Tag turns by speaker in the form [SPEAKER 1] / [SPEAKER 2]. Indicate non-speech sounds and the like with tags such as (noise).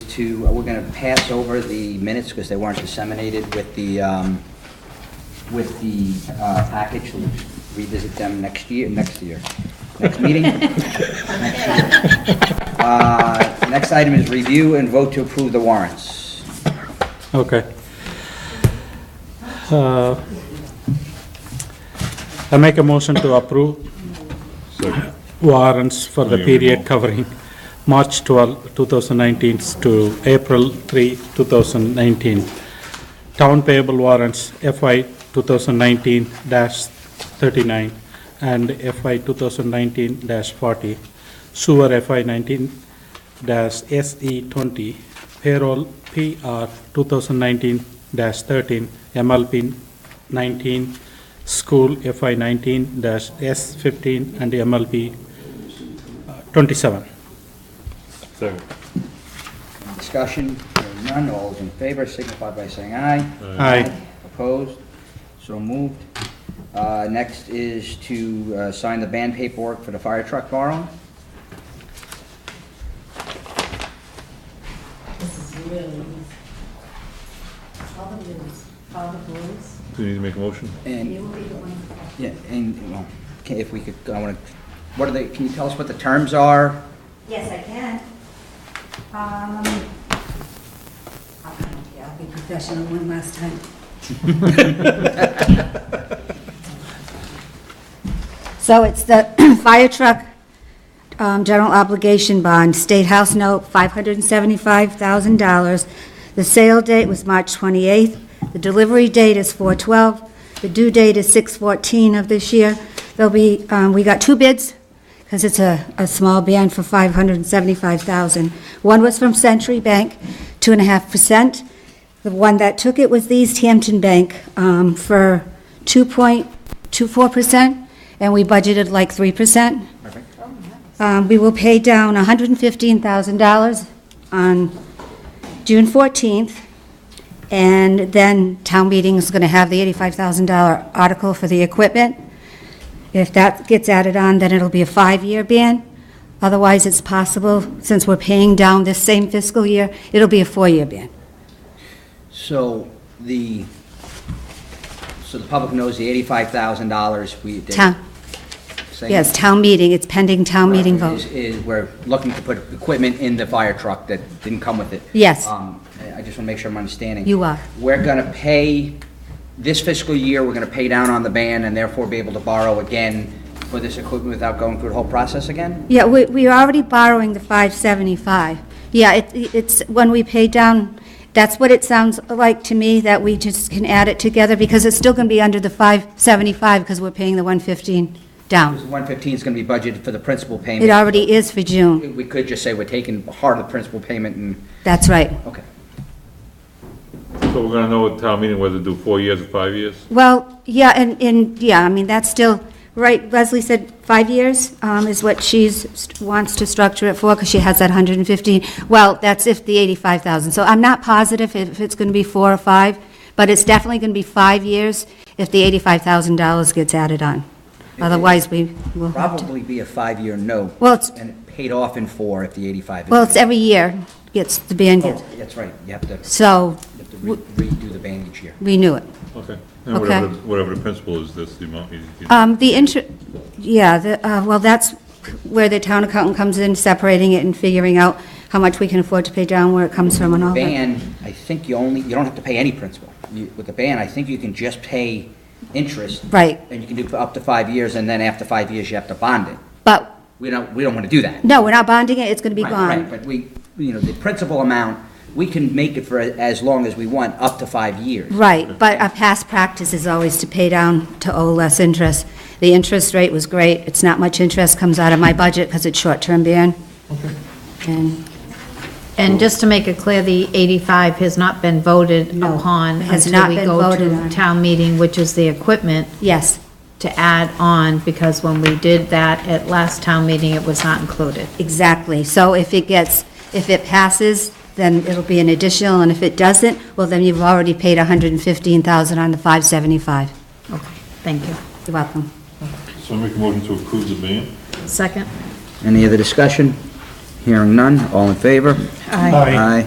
[SPEAKER 1] to, uh, we're going to pass over the minutes because they weren't disseminated with the, um, with the uh, package. We'll Revisit them next year, next year, next meeting. Next year. Uh, Next item is review and vote to approve the warrants.
[SPEAKER 2] Okay. Uh, I make a motion to approve warrants for the period covering March 12, 2019 to April 3, 2019. Town payable warrants FY 2019-39 and FY 2019-40. Sewer FY 19-SE20. E Payroll PR 2019-13. MLP 19. School FY 19-S15 and MLP uh, 27.
[SPEAKER 3] Second.
[SPEAKER 1] Discussion, Hearing none, all those in favor signify by saying aye.
[SPEAKER 2] Aye.
[SPEAKER 1] Opposed? So moved. Uh, Next is to uh, sign the band paperwork for the fire truck borrow.
[SPEAKER 4] This is really easy. All the blues, all the blues.
[SPEAKER 3] Do you need to make a motion?
[SPEAKER 1] And,
[SPEAKER 4] You will be the one.
[SPEAKER 1] yeah, and, well, okay, if we could, I want to, what are they, can you tell us what the terms are?
[SPEAKER 4] Yes, I can. Um, I'll come up here. I'll be professional one last time. So it's the (clears throat) fire truck um, general obligation bond, State House note, $575,000. The sale date was March 28th. The delivery date is 4/12. The due date is 6/14 of this year. There'll be, um, we got two bids, because it's a, a small band for 575,000. One was from Century Bank, 2.5%. The one that took it was the East Hampton Bank um, for 2.24%, and we budgeted like 3%.
[SPEAKER 1] Perfect.
[SPEAKER 4] Um, We will pay down $115,000 on June 14th, and then town meeting is going to have the $85,000 article for the equipment. If that gets added on, then it'll be a five-year ban. Otherwise, it's possible, since we're paying down this same fiscal year, it'll be a four-year ban.
[SPEAKER 1] So the, so the public knows the $85,000 we. they-
[SPEAKER 4] Town,
[SPEAKER 1] saying-
[SPEAKER 4] yes, town meeting, it's pending town meeting
[SPEAKER 1] Is-
[SPEAKER 4] vote.
[SPEAKER 1] Is, we're looking to put equipment in the fire truck that didn't come with it.
[SPEAKER 4] Yes.
[SPEAKER 1] Um, I just want to make sure I'm understanding.
[SPEAKER 4] You are.
[SPEAKER 1] We're going to pay, this fiscal year, we're going to pay down on the ban and therefore be able to borrow again for this equipment without going through the whole process again?
[SPEAKER 4] Yeah, we, we are already borrowing the 575. Yeah, it, it's, when we pay down, that's what it sounds like to me, that we just can add it together, because it's still going to be under the 575, because we're paying the 115 down.
[SPEAKER 1] 115 is going to be budgeted for the principal
[SPEAKER 4] It
[SPEAKER 1] payment.
[SPEAKER 4] already is for June,
[SPEAKER 1] We could just say we're taking part of the principal payment and,
[SPEAKER 4] that's right.
[SPEAKER 1] okay.
[SPEAKER 3] So we're gonna know at town meeting whether to do four years or five years?
[SPEAKER 4] Well, yeah, and, and, yeah, I mean, that's still, right, Leslie said five years um, is what she's, wants to structure it for, because she has that 115. Well, that's if the 85,000. So I'm not positive if it's going to be four or five, but it's definitely going to be five years if the $85,000 gets added on. Otherwise, we will have to.
[SPEAKER 1] Probably be a five-year note.
[SPEAKER 4] Well, it's-
[SPEAKER 1] And it paid off in four if the 85 is.
[SPEAKER 4] Well, it's every year gets, the band gets,
[SPEAKER 1] Oh, That's right, you have to, you
[SPEAKER 4] so
[SPEAKER 1] have to re- redo the ban each year.
[SPEAKER 4] renew it.
[SPEAKER 3] Okay. And whatever, whatever the principle is, that's the amount you. you-
[SPEAKER 4] Um, the inter, yeah, the, uh, well, that's where the town accountant comes in, separating it and figuring out how much we can afford to pay down, where it comes from and all that.
[SPEAKER 1] ban, I think you only, you don't have to pay any principal. You- With the ban, I think you can just pay interest.
[SPEAKER 4] Right.
[SPEAKER 1] And you can do for up to five years, and then after five years, you have to bond it.
[SPEAKER 4] But,
[SPEAKER 1] We don't, we don't want to do that.
[SPEAKER 4] no, we're not bonding it, it's gonna be
[SPEAKER 1] Right, right,
[SPEAKER 4] gone.
[SPEAKER 1] But we, you know, the principal amount, we can make it for as long as we want, up to five years.
[SPEAKER 4] Right, but our past practice is always to pay down to owe less interest. The interest rate was great, it's not much interest comes out of my budget because it's short-term ban. And
[SPEAKER 5] And just to make it clear, the 85 has not been voted
[SPEAKER 4] No,
[SPEAKER 5] upon
[SPEAKER 4] has not
[SPEAKER 5] until we
[SPEAKER 4] been
[SPEAKER 5] go
[SPEAKER 4] voted on.
[SPEAKER 5] to town meeting, which is the equipment
[SPEAKER 4] Yes,
[SPEAKER 5] to add on, because when we did that at last town meeting, it was not included.
[SPEAKER 4] exactly. So if it gets, if it passes, then it'll be an additional, and if it doesn't, well, then you've already paid 115,000 on the 575.
[SPEAKER 5] Okay, thank you.
[SPEAKER 4] You're welcome.
[SPEAKER 3] So make a motion to approve the ban?
[SPEAKER 5] Second?
[SPEAKER 1] Any other discussion? Hearing none, all in favor?
[SPEAKER 5] Aye.
[SPEAKER 1] Aye.